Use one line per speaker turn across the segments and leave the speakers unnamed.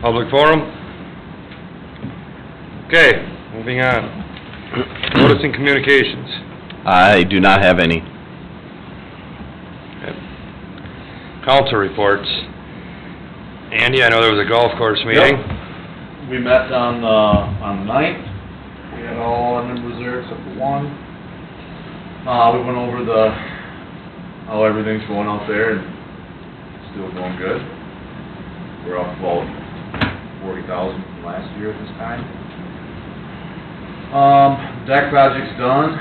Public forum? Okay, moving on. Notice and communications.
I do not have any.
Council reports. Andy, I know there was a golf course meeting.
We met on the, on the ninth, we had all our members there except for one. Uh, we went over the, how everything's going out there and still going good. We're up about forty thousand from last year at this time. Um, deck project's done,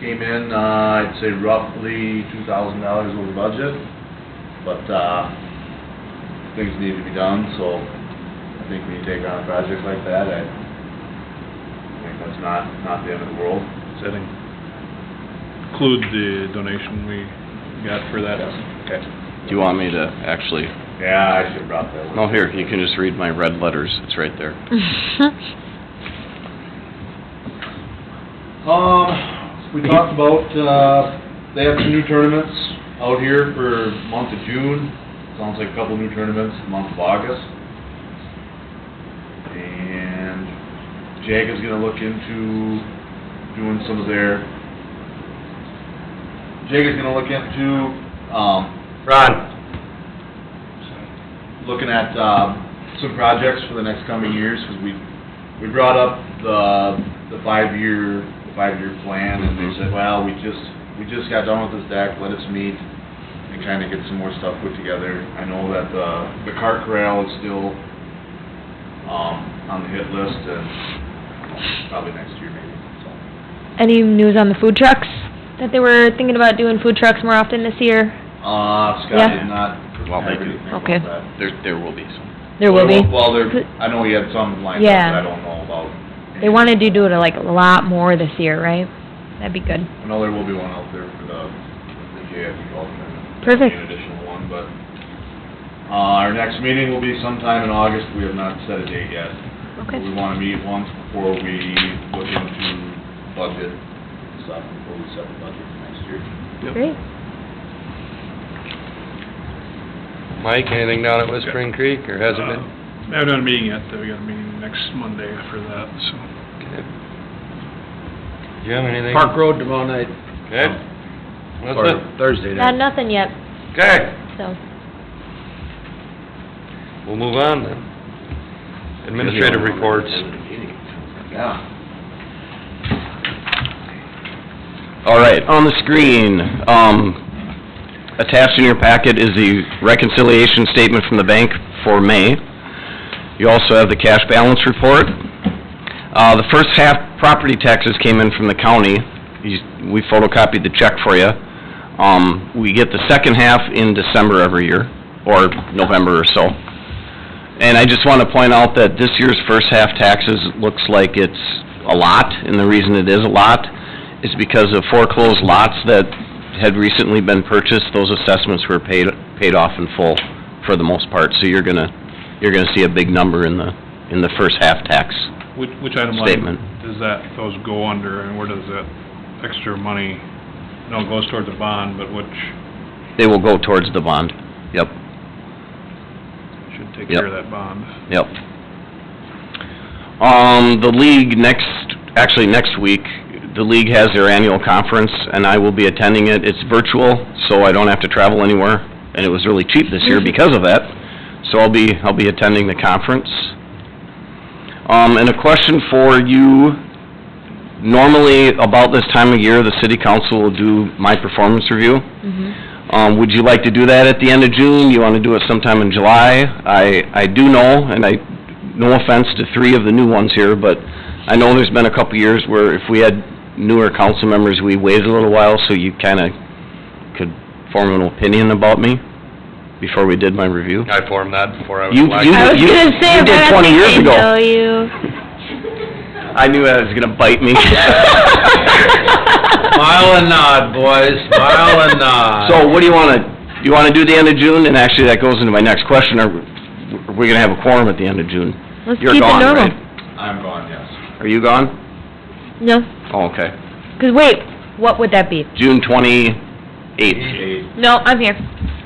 came in, uh, I'd say roughly two thousand dollars over budget, but, uh, things need to be done, so I think when you take on a project like that, I think that's not, not the end of the world.
Does that include the donation we got for that? Okay.
Do you want me to actually,
Yeah, I should have brought that with me.
no, here, you can just read my red letters, it's right there.
Um, we talked about, uh, they have some new tournaments out here for month of June. Sounds like a couple new tournaments month of August. And Jag is gonna look into doing some of their, Jag is gonna look into, um,
Ron,
looking at um, some projects for the next coming years, because we, we brought up the, the five-year, the five-year plan, and they said, well, we just, we just got done with this deck, let us meet and kind of get some more stuff put together. I know that the, the cart corral is still um, on the hit list, and probably next year maybe, so.
Any news on the food trucks? That they were thinking about doing food trucks more often this year?
Uh, Scott
Yeah.
did not
Well, they
have
do.
anything about
Okay.
that.
There, there will be some.
There will be.
Well, there, I know he had some lined up,
Yeah.
but I don't know about.
They wanted to do it like a lot more this year, right? That'd be good.
I know there will be one out there for the, the JFE golf tournament.
Perfect.
An additional one, but, uh, our next meeting will be sometime in August, we have not set a date yet.
Okay.
We wanna meet once before we look into budget stuff, before we set the budget for next year.
Great.
Mike, anything down at Whispering Creek, or hasn't been?
Uh, I haven't had a meeting yet, though, we got a meeting next Monday after that, so.
Okay. Do you have anything?
Park Road tomorrow night,
Okay.
or
That's it.
Thursday
Not
night.
nothing yet,
Okay.
so.
We'll move on then. Administrative reports.
Yeah.
All right, on the screen, um, attached in your packet is the reconciliation statement from the bank for May. You also have the cash balance report. Uh, the first half property taxes came in from the county. You- We photocopied the check for you. Um, we get the second half in December every year, or November or so. And I just want to point out that this year's first half taxes looks like it's a lot, and the reason it is a lot is because of foreclosed lots that had recently been purchased, those assessments were paid, paid off in full for the most part. So you're gonna, you're gonna see a big number in the, in the first half tax.
Which, which item line?
Statement.
Does that, those go under, and where does that extra money, no, it goes toward the bond, but which
They will go towards the bond. Yep,
should take
Yep.
care of that bond?
yep. Um, the league next, actually next week, the league has their annual conference, and I will be attending it. It's virtual, so I don't have to travel anywhere, and it was really cheap this year because of that. So I'll be, I'll be attending the conference. Um, and a question for you. Normally, about this time of year, the city council will do my performance review.
Mm-hmm.
Um, would you like to do that at the end of June? You want to do it sometime in July? I, I do know, and I, no offense to three of the new ones here, but I know there's been a couple years where if we had newer council members, we waited a little while so you kind of could form an opinion about me before we did my review.
I formed that before I was
You-
elected.
you-
I was
you-
gonna say,
you
but
did
I
20 years
think
ago.
I know you.
I knew that was going to bite me.
Smile and nod, boys, smile and nod.
So what do you want to, you want to do the end of June? And actually, that goes into my next question. Are, we- are we going to have a quorum at the end of June?
Let's
You're
keep it
gone,
normal.
right?
I'm gone, yes.
Are you gone?
No,
Oh, okay.
'cause wait, what would that be?
June twenty-eighth.
Eight.
No, I'm here.